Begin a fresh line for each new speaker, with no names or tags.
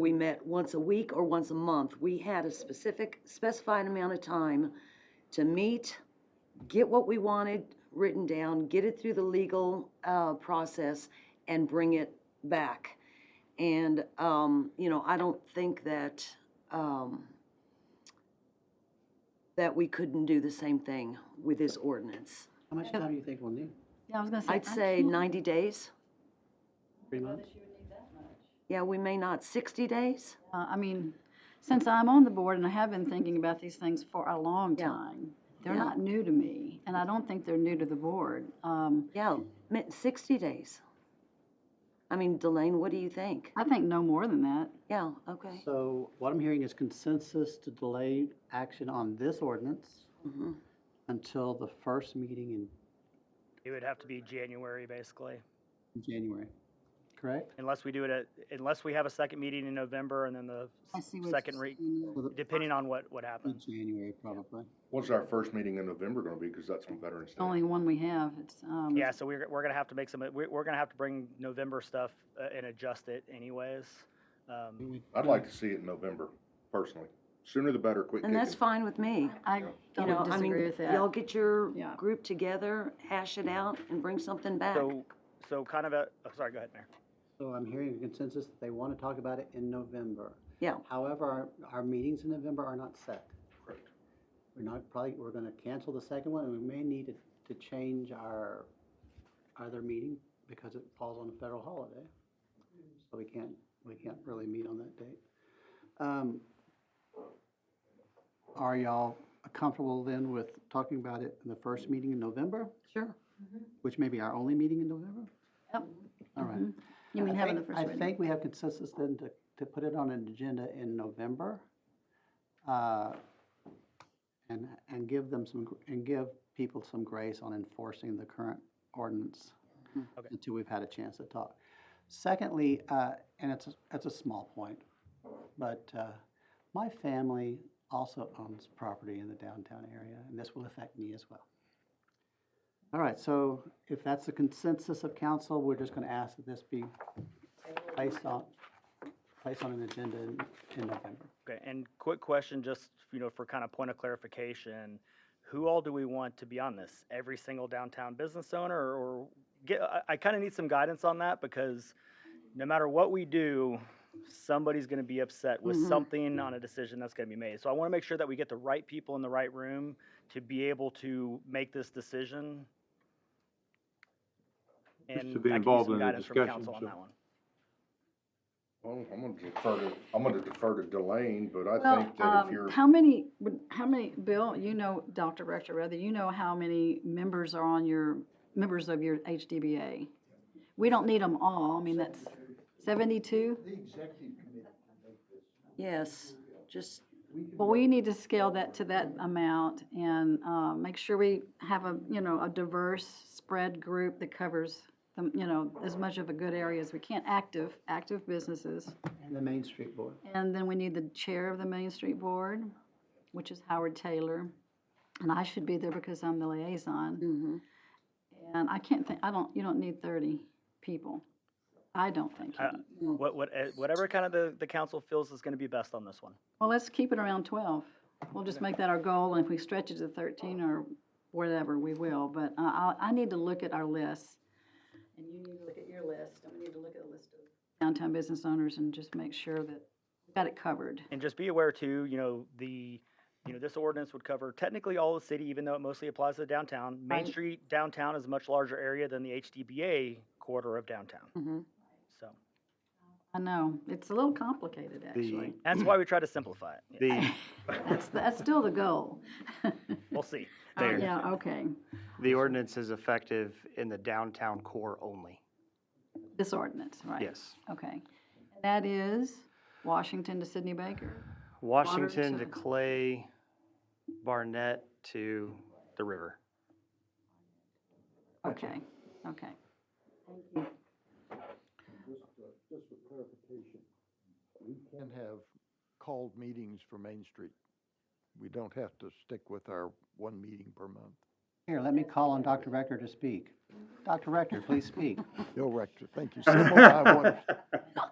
we met once a week or once a month. We had a specific, specified amount of time to meet, get what we wanted written down, get it through the legal, uh, process, and bring it back. And, um, you know, I don't think that, um, that we couldn't do the same thing with this ordinance.
How much time do you think we'll need?
Yeah, I was gonna say.
I'd
I
say
can't-
ninety days.
Three months?
Yeah, we may not, sixty days?
uh, I mean, since I'm on the board and I have been thinking about these things for a long
Yeah.
time, they're
Yeah.
not new to me, and I don't think they're new to the board. Um,
Yeah, mi- sixty days. I mean, Delane, what do you think?
I think no more than that.
Yeah, okay.
So what I'm hearing is consensus to delay action on this ordinance
Mhm.
until the first meeting
It would have to be January, basically,
in January, correct?
unless we do it at, unless we have a second meeting in November and then the
I see what you're
second re,
saying.
Well, the
depending on what, what
In
happens.
January, probably.
What's our first meeting in November gonna be, because that's when Veterans
It's
Day.
the Only one we have, it's, um.
Yeah, so we're, we're gonna have to make some, we're, we're gonna have to bring November stuff uh, and adjust it anyways. Um,
I'd like to see it in November, personally. Sooner the better, quit
And
kicking.
that's fine with me.
I
You know,
don't
I mean,
disagree with
Y'all
that.
get your
Yeah.
group together, hash it out, and bring something back.
so, so kind of a, oh, sorry, go ahead, Mayor.
So I'm hearing a consensus that they want to talk about it in November.
Yeah,
However, our, our meetings in November are not set.
Correct.
We're not probably, we're going to cancel the second one, and we may need to, to change our other meeting because it falls on a federal holiday. So we can't, we can't really meet on that date. Um, Are y'all comfortable then with talking about it in the first meeting in November,
sure.
which may be our only meeting in November?
Yep.
All right.
Mhm. You mean
I
having the
think-
first
I
reading?
think we have consensus then to, to put it on an agenda in November. uh, And, and give them some, gr- and give people some grace on enforcing the current ordinance
Okay.
until we've had a chance to talk. Secondly, uh, and it's, a- it's a small point, but uh, my family also owns property in the downtown area, and this will affect me as well. All right, so if that's the consensus of council, we're just going to ask that this be placed on, placed on an agenda in in November.
Okay, and quick question, just, you know, for kind of point of clarification, who all do we want to be on this? Every single downtown business owner or get, I, I kind of need some guidance on that because no matter what we do, somebody's going to be upset with
Mhm.
something on a decision that's going to be made. So I want to make sure that we get the right people in the right room to be able to make this decision.
Just to
And
be
I could use
involved
some
in the
guidance from
discussion,
council on
so-
that one.
Well, I'm gonna defer to, I'm gonna defer to Delane, but I
Well,
think that if
um,
you're,
how many, would- how many, Bill, you know, Dr. Rector, rather, you know how many members are on your, members of your HDBA? We don't need them all, I mean, that's seventy-two?
Yes, just,
Well, we need to scale that to that amount and uh, make sure we have a, you know, a diverse spread group that covers, the- you know, as much of a good area as we can, active, active businesses.
And the Main Street Board.
And then we need the chair of the Main Street Board, which is Howard Taylor. And I should be there because I'm the liaison.
hmm
And I can't think, I don't, you don't need 30 people. I don't think. you
Uh,
need.
What, what, eh, whatever kind of the, the council feels is going to be best on this one.
Well, let's keep it around 12. We'll just make that our goal, and if we stretch it to 13 or whatever, we will. But uh, I, I need to look at our list, and you need to look at your list, and we need to look at the list of downtown business owners and just make sure that we've got it covered.
And just be aware too, you know, the, you know, this ordinance would cover technically all the city, even though it mostly applies to downtown. Main
Right.
Street downtown is a much larger area than the HDBA quarter of downtown,
hmm
so.
I know, it's a little complicated, actually.
That's why we try to simplify it. Yeah,
The,
That's, that's still the goal.
We'll see.
there,
Yeah, okay,
the ordinance is effective in the downtown core only.
this ordinance, right?
Yes.
Okay. And That is Washington to Sydney Baker.
Washington
to-
to Clay, Barnett to the river.
Okay, okay.
Just, uh, just for clarification, we can have called meetings for Main Street. We don't have to stick with our one meeting per month.
Here, let me call on Dr. Rector to speak. Dr. Rector, please speak.
Bill Rector, thank you. Simple, I wonder-